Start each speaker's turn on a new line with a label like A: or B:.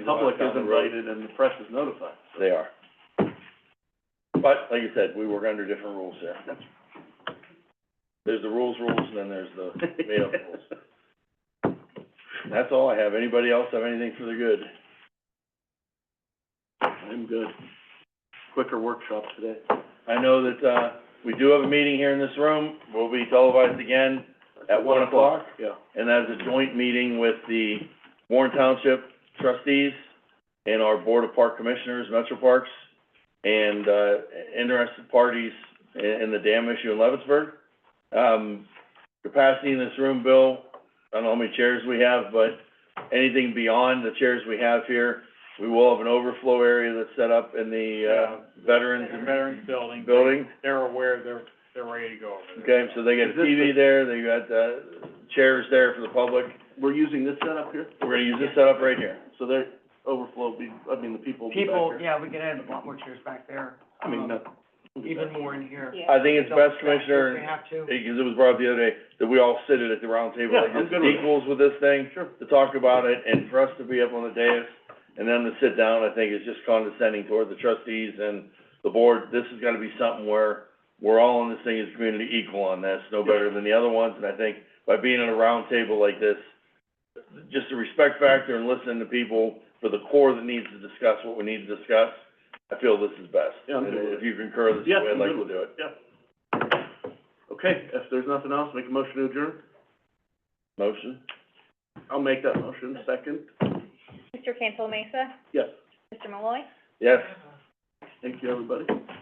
A: The Public is
B: Walk down the road.
A: invited and the press is notified.
B: They are. But, like you said, we work under different rules here. There's the rules rules, and then there's the made-up rules. And That's all I have. Anybody else have anything for the good?
A: I'm good. Quicker workshop today.
B: I know that, uh, we do have a meeting here in this room. We'll be televised again at one o'clock,
A: Yeah.
B: and that is a joint meeting with the Warren Township trustees and our Board of Park Commissioners, Metro Parks, and, uh, interested parties in, in the dam issue in Leavittsburg. Um, capacity in this room, Bill, I don't know how many chairs we have, but anything beyond the chairs we have here, we will have an overflow area that's set up in the, uh, Veterans
C: The Veterans Building.
B: Building.
C: They're aware, they're, they're ready to go over there.
B: Okay, so they got a
A: Is this
B: TV
A: the-
B: there, they got, uh, chairs there for the public.
A: We're using this setup here,
B: We're gonna use this setup right here.
A: so their overflow will be, I mean, the people will be back
D: People,
A: here.
D: yeah, we could add a lot more chairs back there.
A: I mean,
D: um,
A: that.
D: Even more in here.
B: I think it's best,
D: If we
B: Commissioner,
D: have to.
B: because it was brought up the other day, that we all sit at the round table
A: Yeah,
B: like
A: I'm
B: this,
A: good with it.
B: equals with this thing,
A: Sure.
B: to talk about it, and for us to be up on the dais, and them to sit down, I think is just condescending toward the trustees and the board. This has gotta be something where we're all in this thing as a community equal on this, no better than the other ones, and I think by being at a round table like this, just the respect factor and listening to people for the core that needs to discuss what we need to discuss, I feel this is best.
A: Yeah, I'm good with
B: And
A: it.
B: If you concur, this is
A: Yeah,
B: the way
A: I'm
B: I'd like
A: good
B: to
A: with
B: do it.
A: Okay, if there's nothing else, make a motion to adjourn.
B: Motion?
A: I'll make that motion, second.
E: Mr. Cancel Mesa,
A: Yes,
E: Mr. Malloy.
B: Yes.
A: thank you, everybody.